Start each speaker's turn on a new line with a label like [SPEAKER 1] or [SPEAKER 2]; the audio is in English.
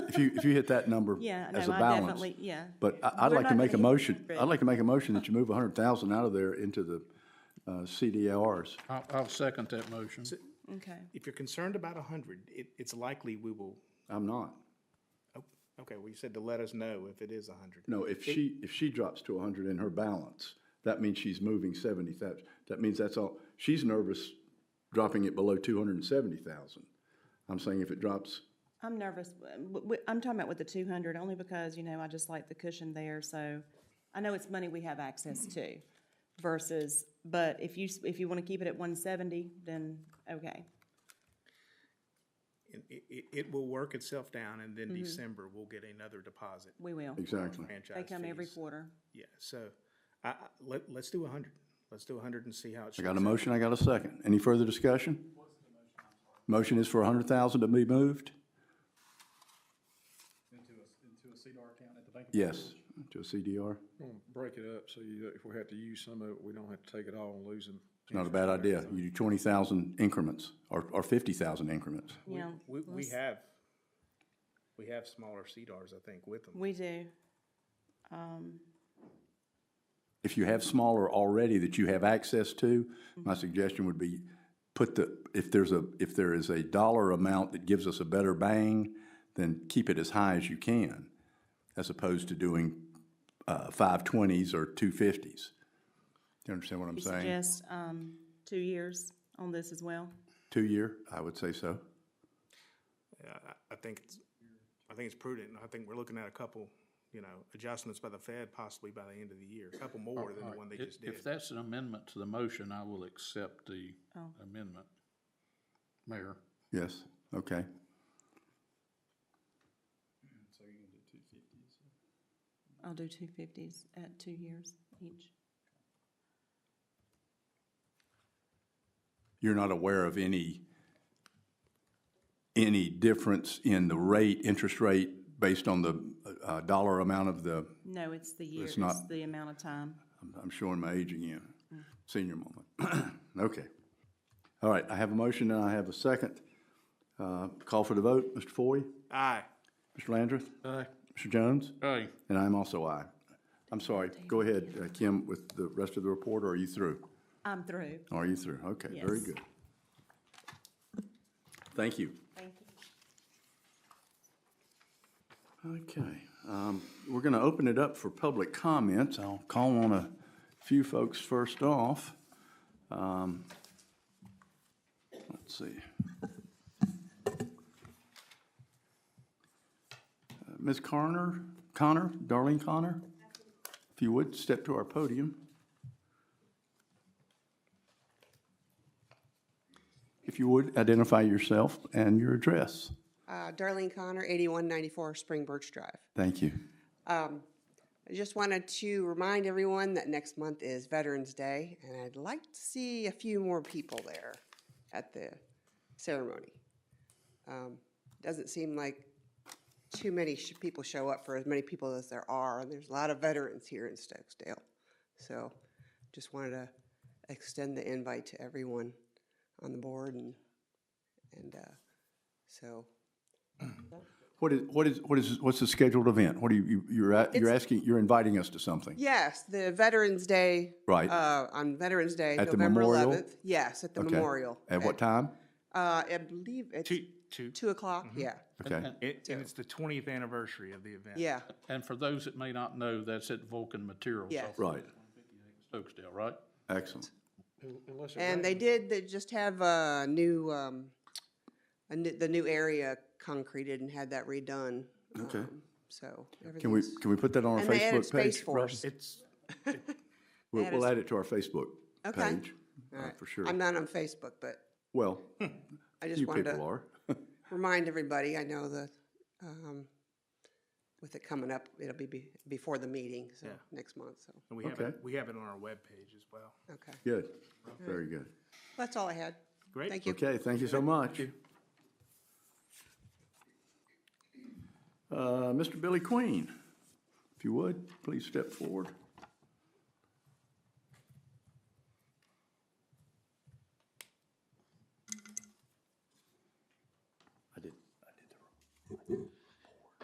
[SPEAKER 1] if you, if you hit that number
[SPEAKER 2] Yeah, no,
[SPEAKER 1] as a
[SPEAKER 2] I
[SPEAKER 1] balance.
[SPEAKER 2] definitely- yeah.
[SPEAKER 1] But I, I'd
[SPEAKER 2] We're
[SPEAKER 1] like to
[SPEAKER 2] not
[SPEAKER 1] make a
[SPEAKER 2] gonna hit
[SPEAKER 1] motion,
[SPEAKER 2] 100.
[SPEAKER 1] I'd like to make a motion that you move a hundred thousand out of there into the, uh, CDRs.
[SPEAKER 3] I'll, I'll second that motion.
[SPEAKER 2] Okay.
[SPEAKER 4] If you're concerned about a hundred, it, it's likely we will,
[SPEAKER 1] I'm not.
[SPEAKER 4] oh, okay, well, you said to let us know if it is a hundred.
[SPEAKER 1] No, if she, if she drops to hundred in her balance, that means she's moving seventy thousand. That means that's all, she's nervous dropping it below two hundred and seventy thousand. I'm saying if it drops,
[SPEAKER 2] I'm nervous. w- w- I'm talking about with the 200 only because, you know, I just like the cushion there. So I know it's money we have access to versus, but if you, s- if you want to keep it at 170, then okay.
[SPEAKER 4] It, it- it, it will work itself down and then December we'll get another deposit.
[SPEAKER 2] We will.
[SPEAKER 1] exactly.
[SPEAKER 4] franchise
[SPEAKER 2] They come every
[SPEAKER 4] fees.
[SPEAKER 2] quarter.
[SPEAKER 4] Yeah, so I, I, let, let's do a hundred. Let's do a hundred and see how it
[SPEAKER 1] I
[SPEAKER 4] shakes
[SPEAKER 1] got
[SPEAKER 4] out.
[SPEAKER 1] a motion, I got a second. Any further discussion? Motion is for a hundred thousand to be moved? Into a, into a CDR account at the Bank of Yes, to a CDR.
[SPEAKER 3] Break it up so you, if we have to use some of it, we don't have to take it all and lose them.
[SPEAKER 1] It's not a bad idea. You do twenty thousand increments or, or fifty thousand increments.
[SPEAKER 2] You know,
[SPEAKER 4] We, we have, we have smaller CDRs, I think, with them.
[SPEAKER 2] we do.
[SPEAKER 1] If you have smaller already that you have access to, my suggestion would be put the, if there's a, if there is a dollar amount that gives us a better bang, then keep it as high as you can, as opposed to doing, uh, five twenties or two fifties. Do you understand what I'm
[SPEAKER 2] You
[SPEAKER 1] saying?
[SPEAKER 2] suggest, um, two years on this as well?
[SPEAKER 1] Two-year, I would say so.
[SPEAKER 4] Yeah, I, I think it's, I think it's prudent. and I think we're looking at a couple, you know, adjustments by the Fed possibly by the end of the year, a couple more than the one they
[SPEAKER 3] If-
[SPEAKER 4] just did.
[SPEAKER 3] If that's an amendment to the motion, I will accept the amendment. Mayor,
[SPEAKER 1] Yes, okay.
[SPEAKER 2] I'll do two fifties at two years each.
[SPEAKER 1] you're not aware of any, any difference in the rate, interest rate, based on the uh, dollar amount of the,
[SPEAKER 2] No, it's the year, it's
[SPEAKER 1] not-
[SPEAKER 2] the amount of time.
[SPEAKER 1] I'm- I'm showing my age again, senior moment. Okay. All right, I have a motion and I have a second. Uh, Call for the vote, Mr. Foy,
[SPEAKER 4] Aye.
[SPEAKER 1] Mr. Landrith? Aye. Mr. Jones?
[SPEAKER 3] aye,
[SPEAKER 1] And I'm also aye. I'm sorry, go ahead, uh, Kim, with the rest of the report, or are you through?
[SPEAKER 2] I'm through.
[SPEAKER 1] Are you through? Okay, very
[SPEAKER 2] Yes.
[SPEAKER 1] good. Thank you.
[SPEAKER 2] Thank you.
[SPEAKER 1] Okay, um, we're going to open it up for public comments. I'll call on a few folks first off. Um, Let's see. Uh, Ms. Connor, Connor, Darlene Connor, if you would, step to our podium. If you would, identify yourself and your address.
[SPEAKER 5] Uh, Darlene Connor, 8194 Spring Birch Drive.
[SPEAKER 1] Thank you.
[SPEAKER 5] I just wanted to remind everyone that next month is Veterans Day, and I'd like to see a few more people there at the ceremony. Um, Doesn't seem like too many sh- people show up for as many people as there are, and there's a lot of veterans here in Stokesdale. So just wanted to extend the invite to everyone on the board, and, and uh, so
[SPEAKER 1] What is, what is, what is, what's the scheduled event? What are you- you, you're, at- you're asking, you're inviting us to something?
[SPEAKER 5] Yes, the Veterans Day.
[SPEAKER 1] Right.
[SPEAKER 5] Uh, on Veterans Day,
[SPEAKER 1] At the
[SPEAKER 5] November
[SPEAKER 1] memorial?
[SPEAKER 5] eleventh. Yes, at the
[SPEAKER 1] Okay.
[SPEAKER 5] memorial.
[SPEAKER 1] At what time?
[SPEAKER 5] Uh, I believe it's
[SPEAKER 4] Two, Mm-hmm. two.
[SPEAKER 5] two o'clock, yeah,
[SPEAKER 1] Okay,
[SPEAKER 4] It- And it's the twentieth anniversary of the event.
[SPEAKER 5] yeah,
[SPEAKER 3] and for those that may not know, that's at Vulcan Materials
[SPEAKER 5] yeah.
[SPEAKER 3] off
[SPEAKER 1] right,
[SPEAKER 3] Stokesdale, right?
[SPEAKER 1] excellent.
[SPEAKER 5] And they did, they just have a new, um, a new, the new area concreted and had that redone.
[SPEAKER 1] Okay.
[SPEAKER 5] um, So
[SPEAKER 1] Can we,
[SPEAKER 5] everything's,
[SPEAKER 1] can we put that on our
[SPEAKER 5] and they added
[SPEAKER 1] Facebook
[SPEAKER 5] Space
[SPEAKER 1] page?
[SPEAKER 5] Force.
[SPEAKER 4] It's,
[SPEAKER 1] We'll,
[SPEAKER 5] added
[SPEAKER 1] we'll
[SPEAKER 5] s-
[SPEAKER 1] add it to our Facebook
[SPEAKER 5] Okay.
[SPEAKER 1] page, uh,
[SPEAKER 5] All right.
[SPEAKER 1] for sure.
[SPEAKER 5] I'm not on Facebook, but
[SPEAKER 1] Well,
[SPEAKER 5] I just
[SPEAKER 1] you
[SPEAKER 5] wanted to.
[SPEAKER 1] people are.
[SPEAKER 5] remind everybody, I know that, um, with it coming up, it'll be be, before the meeting, so,
[SPEAKER 4] Yeah.
[SPEAKER 5] next month, so,
[SPEAKER 4] we have it,
[SPEAKER 1] Okay.
[SPEAKER 4] we have it on our webpage as well.
[SPEAKER 5] okay.
[SPEAKER 1] Good, very good.
[SPEAKER 5] That's all I had.
[SPEAKER 4] Great.
[SPEAKER 5] Thank you.
[SPEAKER 1] Okay, thank you so much. Uh, Mr. Billy Queen, if you would, please step forward.